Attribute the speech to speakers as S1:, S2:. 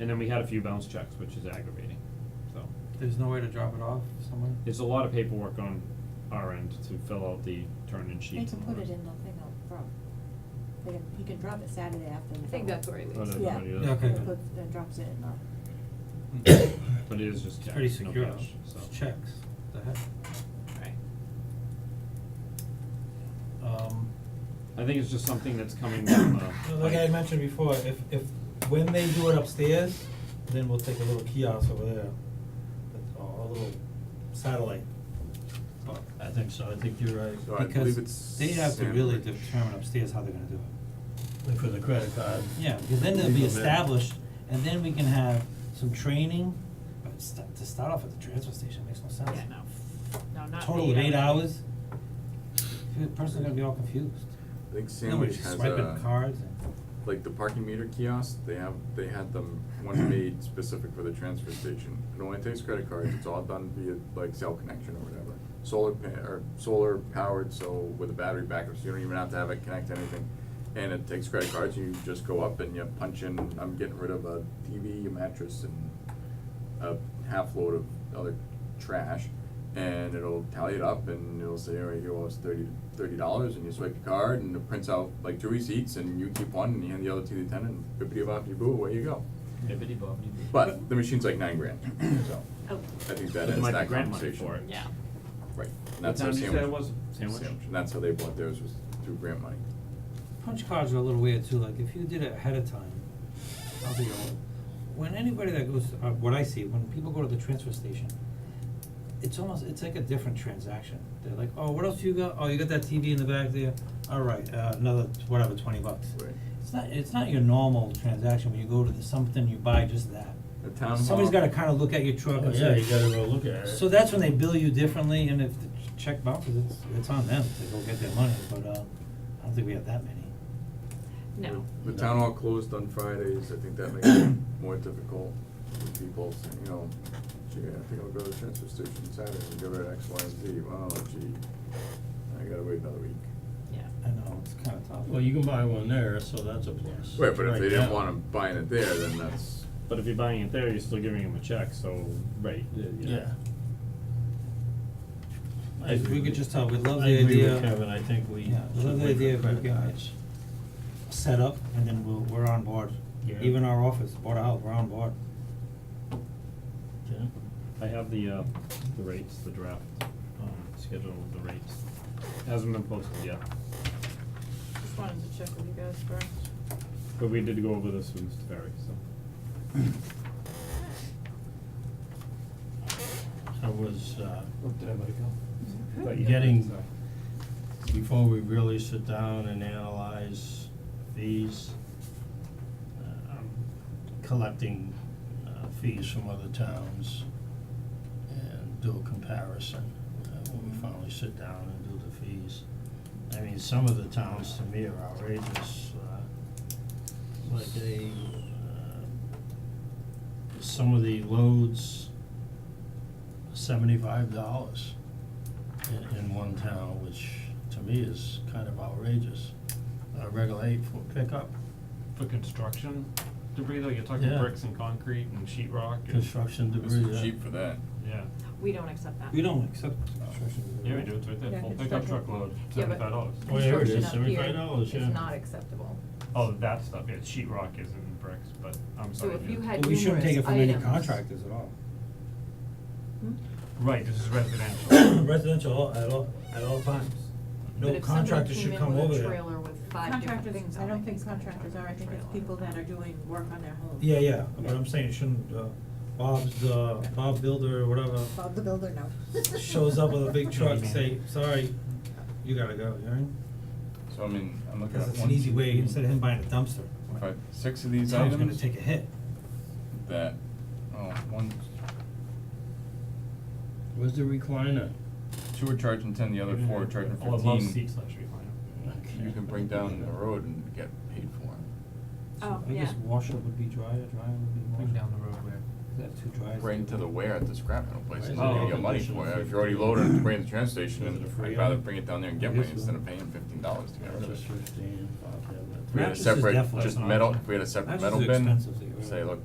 S1: And then we had a few bounce checks, which is aggravating, so.
S2: There's no way to drop it off somewhere?
S1: There's a lot of paperwork on our end to fill out the turn-in
S3: They
S1: sheets
S3: can
S1: and all
S3: put
S1: that.
S3: it in the thing out front. They can, he can drop it Saturday after the.
S4: I think that's where he
S1: But
S4: leaves.
S3: Yeah.
S1: everybody does.
S2: Yeah, okay.
S3: He puts, then drops it in the,
S1: But it is just
S2: Hmm. It's
S1: checks,
S2: pretty
S1: no
S2: secure though,
S1: cash, so.
S2: it's checks, the heck.
S4: Right.
S2: Um,
S1: I think it's just something that's coming from uh
S5: Like I mentioned before, if if when they do it upstairs, then we'll take a little kiosk over there, but- or a little satellite. But
S2: I think so, I think you're right.
S6: So I believe
S2: Because
S6: it's
S2: they have to really
S6: Sandbridge.
S2: determine upstairs how they're gonna do it.
S5: like for the credit
S6: Uh,
S5: card.
S2: Yeah, because then they'll be
S5: Legal bid.
S2: established, and then we can have some training, but st- to start off at the transfer station makes no sense.
S4: Yeah, no, no, not eight hours.
S2: Total of eight hours, the person's gonna be all confused.
S6: I think
S2: Nobody's
S6: Sandwich has
S2: Swiping
S6: a,
S2: cards and,
S6: like the parking meter kiosk, they have, they had them, one made specific for the transfer station. It only takes credit cards, it's all done via like cell connection or whatever. Solar pa- or solar powered, so with a battery backup, so you don't even have to have it connect to anything. And it takes credit cards, you just go up and you punch in, I'm getting rid of a TV, a mattress and a half load of other trash and it'll tally it up and it'll say, all right, you owe us thirty, thirty dollars and you swipe your card and it prints out like two receipts and you keep one and you hand the other to the attendant and bippity boppity boo, away you go. But the machine's like nine grand, so
S4: Oh,
S6: I think
S1: But
S6: that
S1: there
S6: ends
S1: might be
S6: that
S1: grant
S6: conversation.
S1: money for it.
S4: yeah,
S6: Right, and
S1: What
S6: that's how
S1: time did you say
S6: sandwich.
S1: it was? Sandwich?
S6: And that's how they bought theirs was through grant money.
S2: punch cards are a little weird too, like if you did it ahead of time, I'll be all, when anybody that goes, uh, what I see, when people go to the transfer station, it's almost, it's like a different transaction, they're like, oh, what else you got, oh, you got that TV in the back there, alright, uh, another, t- whatever, twenty bucks.
S6: Right.
S2: It's not, it's not your normal transaction where you go to the, something, you buy just that.
S6: The town
S2: Somebody's
S6: hall-
S2: gotta kinda look at your truck and say.
S5: go look at
S2: So that's when they bill you differently, and if the ch- check bounces, it's, it's on them to go get their money, but, uh, I don't think we have that many.
S4: no,
S6: The town hall closed on Fridays, I think that makes it more difficult for people, so, you know, gee, I think I'll go to the transfer station Saturday and go to X, Y, and Z, oh gee, I gotta wait another week.
S4: yeah.
S2: I know, it's kinda tough.
S7: Well, you can buy one there, so that's a plus.
S6: Right, but if they didn't
S7: now.
S6: want 'em buying it there, then that's,
S1: But if you're buying it there, you're still giving them a check, so, right, uh, yeah, yeah.
S7: Yeah. I
S2: If we
S7: agree
S2: could
S7: with-
S2: just tell, we love the
S7: I agree
S2: idea.
S7: with Kevin, I think we
S2: Yeah, we
S7: should
S2: love the
S7: wait for
S2: idea of
S7: credit
S2: looking at
S7: cards.
S2: set up, and then we'll, we're on board.
S7: Yeah.
S2: Even our office, Board of Health, we're on board.
S7: Yeah.
S1: I have the uh, the rates, the draft, um, schedule of the rates, hasn't been posted yet,
S4: Just wanted to check with you guys first.
S1: but we did go over this with Mr. Ferry, so.
S7: I was, uh,
S1: did I let it go? But yeah,
S7: getting,
S1: so-
S7: before we really sit down and analyze fees, uh, I'm collecting, uh, fees from other towns and do a comparison, uh, when we finally sit down and do the fees. I mean, some of the towns to me are outrageous, uh, like they, uh, some of the loads, seventy-five dollars in, in one town, which to me is kind of outrageous. Uh, Regular eight for pickup,
S8: For construction debris, though, you're talking
S7: Yeah.
S8: bricks and concrete and sheet rock and,
S7: construction
S6: it's
S7: debris, uh, yeah.
S6: cheap for that.
S8: yeah.
S4: We don't accept that.
S2: We don't accept construction.
S8: Yeah, we do, it's right there,
S4: Yeah,
S8: full pickup
S4: construction.
S8: truckload,
S4: Yeah, but
S8: seventy-five dollars.
S7: Oh, yeah, it
S4: construction
S7: is,
S4: up here
S7: $75,
S4: is
S7: yeah.
S4: not acceptable.
S8: Oh, that stuff, yeah, sheet rock isn't bricks, but I'm
S4: So
S8: sorry.
S4: if
S8: yeah.
S4: you had
S2: But we shouldn't take it
S4: numerous
S2: from any
S4: items-
S2: contractors at all.
S4: Hmm?
S8: Right, this is residential.
S5: Residential all- at all, at all times.
S4: But
S5: No
S4: if someone
S5: contractor
S4: came
S5: should
S4: in
S5: come
S4: with a
S5: over there.
S4: trailer with five different
S3: contractors,
S4: things
S3: I
S4: on it,
S3: don't think
S4: he's gonna
S3: contractors
S4: charge
S3: are, I think it's
S4: trailer.
S3: people that are doing work on their homes.
S5: Yeah, yeah, but I'm saying it shouldn't, uh, Bob's, uh, Bob Builder or whatever
S3: Bob the builder, no.
S5: shows up with a big truck,
S8: Johnny Man.
S5: say, sorry, you gotta go, you know? what I mean?
S6: So I mean, I'm looking at
S5: Cause it's
S6: one,
S5: an easy
S6: two,
S5: way,
S6: three,
S5: instead of him buying a dumpster.
S6: five- six of these
S2: Town's gonna
S6: items
S2: take a hit.
S6: that, oh, one,
S7: Where's the recliner?
S6: two are charging ten, the other
S8: Even
S6: four are
S8: if-
S6: charging fifteen.
S8: All the love seats, let's refine
S6: You can bring down the road and get paid for it,
S4: Oh,
S2: I guess
S4: yeah.
S2: washer would be dryer, dryer would be washer.
S8: Bring down the road where,
S2: Is that too dry?
S6: bring to the wear at the scrap metal place,
S7: Why
S6: and
S7: is
S6: you're
S8: it
S6: gonna
S8: all
S6: get money
S7: conditioned
S6: for it, if
S7: for-
S6: you're already loaded and bring it to the transfer station,
S7: Is it
S6: then
S7: a free
S6: I'd rather
S7: item?
S6: bring it down there and get
S2: I guess
S6: money instead
S2: so.
S6: of paying fifteen dollars to get rid of it.
S7: Just fifteen, five, yeah, but-
S6: If we had a
S2: Mattresses
S6: separate,
S2: definitely-
S6: just
S8: That's an
S6: metal,
S8: option.
S6: if we had a separate
S2: Mattresses
S6: metal
S2: are
S6: bin,
S2: expensive to get rid of.
S6: say, look,